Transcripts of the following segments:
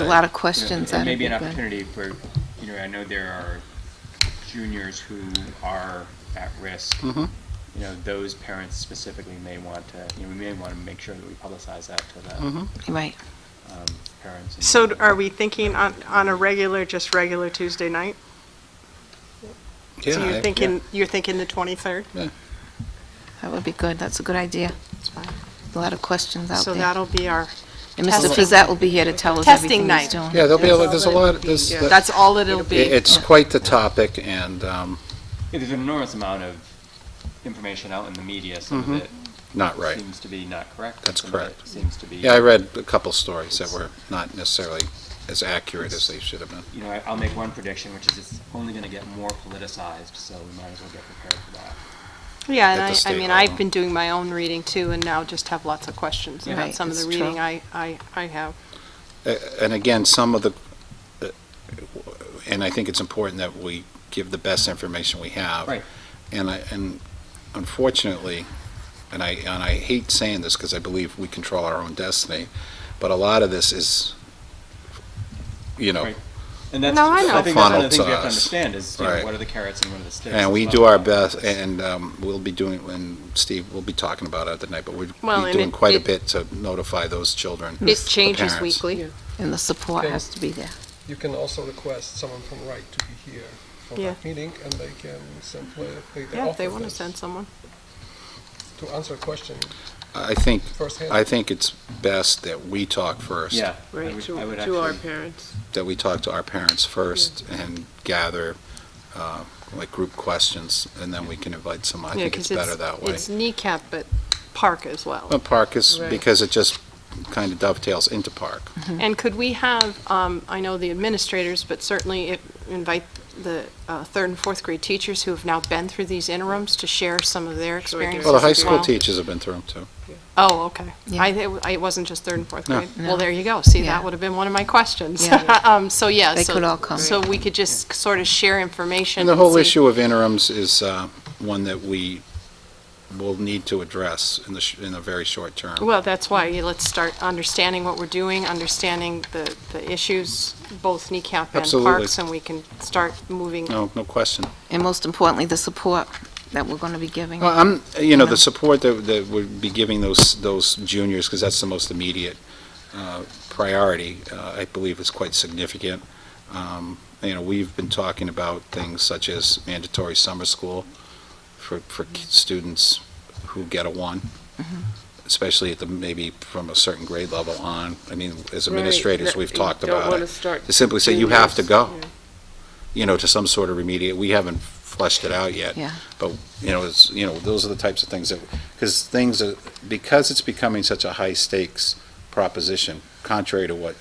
It's a lot of you know, questions. There out may of be an people. opportunity for, you know, I know there are juniors who are at risk. Mhm. You know, those parents specifically may want to, you know, we may want to make sure that we publicize that to the Mhm. Right. um, parents. and- So are we thinking on, on a regular, just regular Tuesday night? So Yeah, I- you're thinking, you're thinking the 23rd? That would be good. That's a good idea. That's fine. A lot of questions out So there. that'll be our, And Mr. Fizette will be here to tell us Testing everything he's night. doing. Yeah, there'll be, a lot- there's a lot, there's, it- that's all it'll be. it's quite the topic, and um, Yeah, There's an enormous amount of information out in the media, some of it Mm-hmm. not right. seems to be not correct. and That's some of it correct. Seems to be. Yeah, I read a couple stories that were not necessarily as accurate as they should have been. You know, I- I'll make one prediction, which is it's only going to get more politicized, so we might as well get prepared for that. Yeah, and at the I, I state mean, level. I've been doing my own reading too, and now just have lots of questions Yeah. about Right, some of the it's reading true. I, I, I have. A- And again, some of the, uh, and I think it's important that we give the best information we have. Right. And I, and unfortunately, and I, and I hate saying this because I believe we control our own destiny, but a lot of this is, you know, Right. And that's, No, I know. I think that's one of the Funnel things we to have to us. understand is, you know, Right. what are the carrots and what are the sticks? And we It's do about our balance. best, and um, we'll be doing, and Steve, we'll be talking about it tonight, but we'll Well, be and doing it- quite a it- bit to notify those children. It the changes parents. weekly. And the support Okay. has to be there. You can also request someone from Wright to be here for Yeah. that meeting, and they can simply, they they Yeah, if they offer want to this send someone. to answer a question I think, firsthand. I think it's best that we talk first. Yeah. I Right, would- to, I would to our actually- parents. That we talk to our parents first and gather, uh, like, group questions, and then we can invite some. I Yeah, think it's 'cause better that way. It's kneecap, but park as well. But Park is, Right. because it just kind of dovetails into Park. And could we have, um, I know the administrators, but certainly if- invite the uh, third and fourth grade teachers who have now been through these interims to share some of their Sure, yeah. experiences Well, the high as school well? teachers have been through them, too. Oh, okay. Yeah. I, thi- I- it wasn't just third and fourth No. grade. No. Well, there you go. See, Yeah. that would have been one of my questions. Yeah. Um, so, yeah. They so- could all come. So we could just sort of share information. And the whole see- issue of interims is uh, one that we will need to address in the, sh- in the very short term. Well, that's why, yeah, let's start understanding what we're doing, understanding the, the issues, both kneecap and Absolutely. parks, and we can start moving. No, no question. And most importantly, the support that we're going to be giving. Well, I'm, you know, the support that, that would be giving those, those juniors, because that's the most immediate uh, priority, uh, I believe is quite significant. Um, You know, we've been talking about things such as mandatory summer school for, for ki- students who get a one, Mm-hmm. especially at the, maybe from a certain grade level on. I mean, as Right, administrators, that we've you talked don't about it. wanna start To simply say, you have to juniors, go, yeah. you know, to some sort of remediate, we haven't fleshed it out yet. Yeah. But, you know, it's, you know, those are the types of things that, because things are, because it's becoming such a high stakes proposition, contrary to what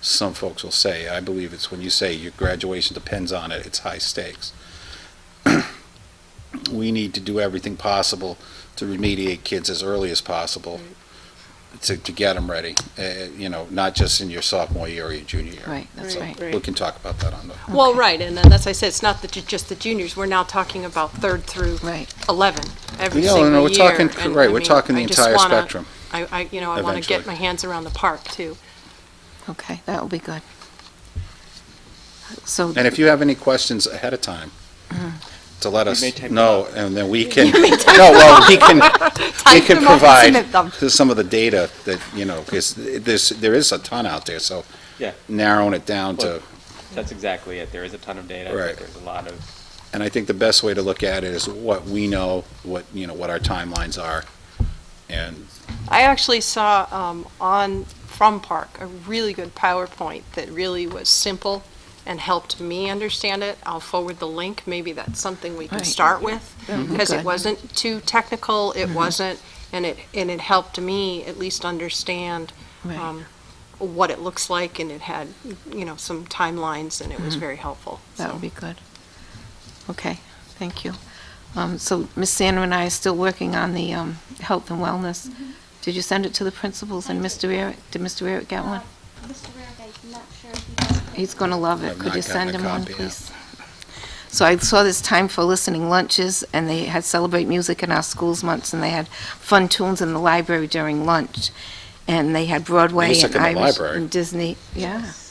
some folks will say, I believe it's when you say your graduation depends on it, it's high stakes. We need to do everything possible to remediate kids as early as possible to, to get them ready, uh, you know, not just in your sophomore year or your junior year. Right, that's right. We can talk about that on the. Well, right, and then, as I said, it's not the ju- just the juniors, we're now talking about third through Right. 11, every Yeah, single year. no, we're talking- and, right, I we're mean, talking the I just entire wanna- spectrum. I, I, you know, I want to Eventually. get my hands around the park, too. Okay, that will be good. So, And if you have any questions ahead of time, Mm-hmm. to let You us may type them know, and then we can, no, well, we can, we can them up and submit provide them. some of the data that, you know, because there's, there is a ton out there, so Yeah, narrowing it down to, that's exactly it. There is a ton of data. Right. There's a lot of, and I think the best way to look at it is what we know, what, you know, what our timelines are, and I actually saw um, on From Park a really good PowerPoint that really was simple and helped me understand it. I'll forward the link. Maybe that's something we can Right. start with be because good. Mm-hmm. it wasn't too technical. It wasn't, and it and it helped me at least understand Right. um, what it looks like. And it had you know some timelines, and it was very helpful. Mm-hmm. that So- will be good. Okay, thank you. Um, So Ms. Sandra and I are still working on the um, health and wellness. Mm-hmm. Did you send it to the principals and Mr. Eric? Did Mr. Eric get one? Mr. Rarick, I'm not sure if he has. He's going to love it. I've Could not you gotten send a him one, copy yet. please? So I saw this time for listening lunches, and they had Celebrate Music in Our Schools months, and they had fun tunes in the library during lunch. And they had Broadway and Music in the Irish library? and Disney. Yeah.